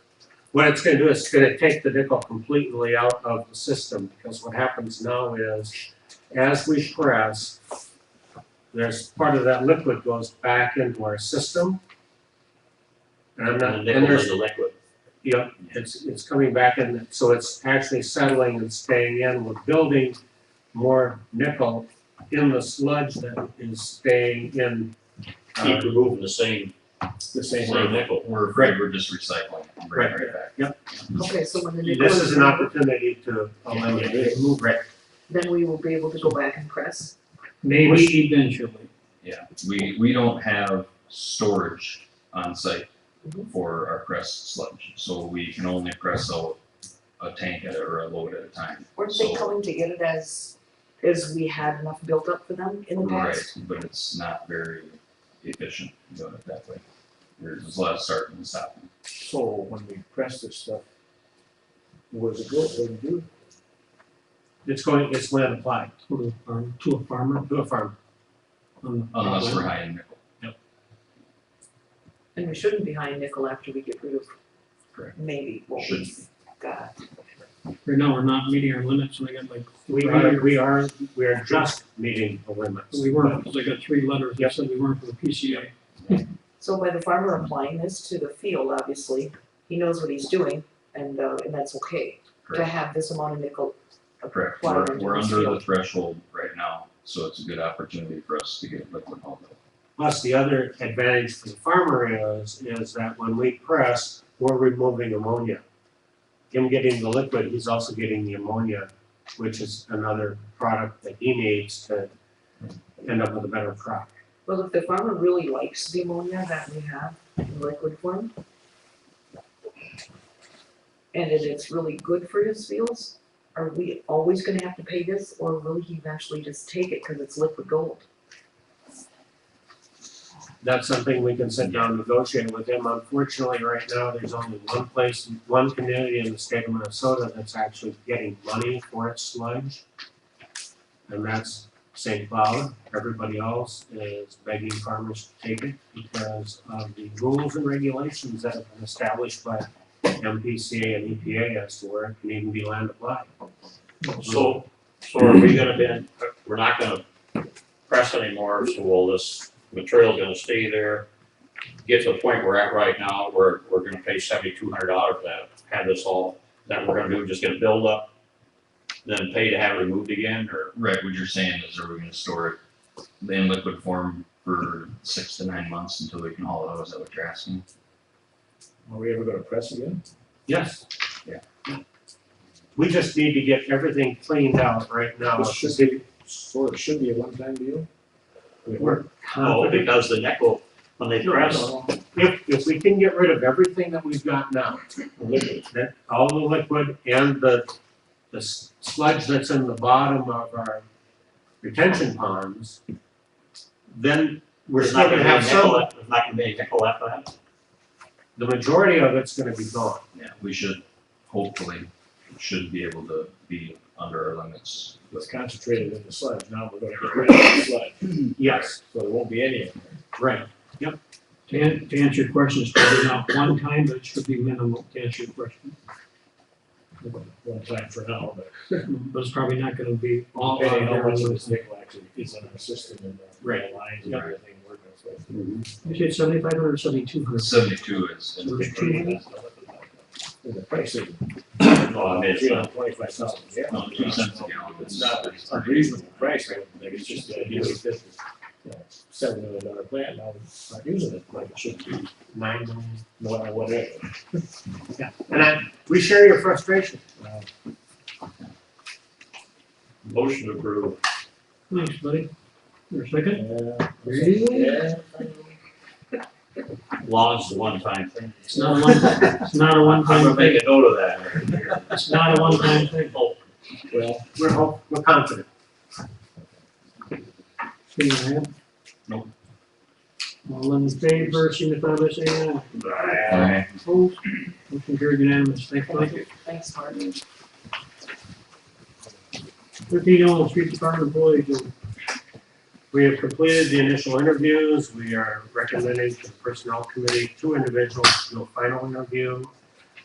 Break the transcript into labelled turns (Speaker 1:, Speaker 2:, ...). Speaker 1: What it's gonna do is it's gonna take the nickel completely out of the system, because what happens now is, as we press, there's part of that liquid goes back into our system. And I'm not,
Speaker 2: And
Speaker 1: and
Speaker 2: the nickel
Speaker 1: there's
Speaker 2: is the liquid.
Speaker 1: Yep, it's, it's coming back in, so it's actually settling and staying in, we're building more nickel in the sludge that is staying in, uh,
Speaker 2: Keep removing the same,
Speaker 1: the same
Speaker 2: same
Speaker 1: way.
Speaker 2: nickel.
Speaker 3: We're afraid we're just recycling and bringing it right back.
Speaker 4: Okay, so when the nickel
Speaker 1: This
Speaker 4: is
Speaker 1: is an
Speaker 4: done,
Speaker 1: opportunity to eliminate it.
Speaker 4: then we will be able to go back and press.
Speaker 5: Maybe eventually.
Speaker 3: Yeah, we, we don't have storage on site
Speaker 4: Mhm.
Speaker 3: for our pressed sludge, so we can only press out a tank at a- or a load at a time.
Speaker 4: Weren't
Speaker 3: So-
Speaker 4: they coming to get it as, as we had enough built up for them in the past?
Speaker 3: Right, but it's not very efficient doing it that way. There's a lot of starting and stopping.
Speaker 6: So when we press this stuff, where's it go, what do you do?
Speaker 1: It's going, it's land applied
Speaker 5: To a farm, to a farmer.
Speaker 1: to a farm.
Speaker 5: on the-
Speaker 3: Unless we're high in nickel.
Speaker 4: And we shouldn't be high in nickel after we get rid of
Speaker 3: Correct.
Speaker 4: maybe what
Speaker 3: Shouldn't
Speaker 4: we've got.
Speaker 5: Right now, we're not meeting our limits, and I got like,
Speaker 1: We are, we are, we are just meeting the limits.
Speaker 5: we weren't, because I got three letters
Speaker 1: Yep.
Speaker 5: that said we weren't for the PCA.
Speaker 4: So by the farmer applying this to the field, obviously, he knows what he's doing and, uh, and that's okay to
Speaker 3: Correct.
Speaker 4: have this amount of nickel applied
Speaker 3: Correct, we're,
Speaker 4: into
Speaker 3: we're
Speaker 4: this
Speaker 3: under the
Speaker 4: field.
Speaker 3: threshold right now, so it's a good opportunity for us to get liquid hauled out.
Speaker 1: Plus, the other advantage for the farmer is, is that when we press, we're removing ammonia. Him getting the liquid, he's also getting the ammonia, which is another product that he needs to end up with a better crop.
Speaker 4: Well, if the farmer really likes the ammonia that we have in liquid form, and it is really good for his fields, are we always gonna have to pay this, or will he eventually just take it because it's liquid gold?
Speaker 1: That's something we can sit down and negotiate with him. Unfortunately, right now, there's only one place, one community in the state of Minnesota that's actually getting money for its sludge. And that's St. Cloud. Everybody else is begging farmers to take it because of the rules and regulations that have been established by MPCA and EPA as to where it can even be land applied.
Speaker 2: So, so are we gonna then, we're not gonna press anymore, so will this material gonna stay there? Get to the point we're at right now, where we're gonna pay seventy-two hundred dollars for that, have this all, that we're gonna do, just gonna build up, then pay to have it removed again, or?
Speaker 3: Right, what you're saying is are we gonna store it in liquid form for six to nine months until we can haul it out, is that what you're asking?
Speaker 6: Are we ever gonna press again?
Speaker 1: Yes.
Speaker 3: Yeah.
Speaker 1: We just need to get everything cleaned out right now.
Speaker 5: Oh,
Speaker 6: This should be, so it should be a one-time deal? We
Speaker 1: We're
Speaker 2: Oh,
Speaker 1: confident
Speaker 2: because the nickel, when they press,
Speaker 1: If, if we can get rid of everything that we've got now, that, all the liquid and the, the s- sludge that's in the bottom of our retention ponds, then we're
Speaker 2: there's
Speaker 1: still
Speaker 2: not
Speaker 1: gonna
Speaker 2: gonna be
Speaker 1: have
Speaker 2: a nickel,
Speaker 1: some,
Speaker 2: left- there's not gonna be a nickel left of that.
Speaker 1: the majority of it's gonna be gone.
Speaker 3: Yeah, we should, hopefully, should be able to be under our limits.
Speaker 6: It's concentrated in the sludge, now we're gonna get rid of the sludge,
Speaker 1: Yes,
Speaker 6: so there won't be any of it.
Speaker 1: right.
Speaker 5: To an, to answer your question, it's probably not one time, but it should be minimal to answer your question.
Speaker 6: One time for now, but
Speaker 5: But it's probably not gonna be all out
Speaker 6: depending on
Speaker 5: there.
Speaker 6: how much of this
Speaker 5: You
Speaker 6: nickel actually is in our system and
Speaker 1: Right.
Speaker 6: the lines and
Speaker 3: Right.
Speaker 6: everything we're gonna say.
Speaker 5: said seventy-five hundred or seventy-two hundred?
Speaker 3: Seventy-two is in
Speaker 5: There's
Speaker 3: liquid.
Speaker 5: two.
Speaker 6: And the price is,
Speaker 2: No, I mean, it's
Speaker 6: three
Speaker 2: not,
Speaker 6: hundred twenty-five thousand, yeah.
Speaker 3: No, two cents a gallon.
Speaker 6: It's not an unreasonable price, I don't think, it's just the idea that this is, you know, seven million dollar plant, now we're not using it like it should be,
Speaker 1: Nine million.
Speaker 6: no matter whatever.
Speaker 1: And I, we share your frustration.
Speaker 6: Uh,
Speaker 2: motion approved.
Speaker 5: Thanks, buddy. Your second?
Speaker 6: Yeah.
Speaker 2: Long's the one-time thing.
Speaker 5: It's not a one, it's not a
Speaker 2: I'm
Speaker 5: one-time
Speaker 2: gonna
Speaker 5: thing.
Speaker 2: make a note of that.
Speaker 5: It's not a one-time thing.
Speaker 2: Oh,
Speaker 6: Well,
Speaker 1: We're hope, we're confident.
Speaker 5: See what I have?
Speaker 3: Nope.
Speaker 5: All in favor, signify by saying aye.
Speaker 2: Right.
Speaker 5: Opposed? Motion carried unanimous. Thanks, Mike.
Speaker 4: Thanks, Mark.
Speaker 5: Thirteen oh, street department employees.
Speaker 1: We have completed the initial interviews. We are recommending to the personnel committee two individuals to do a final interview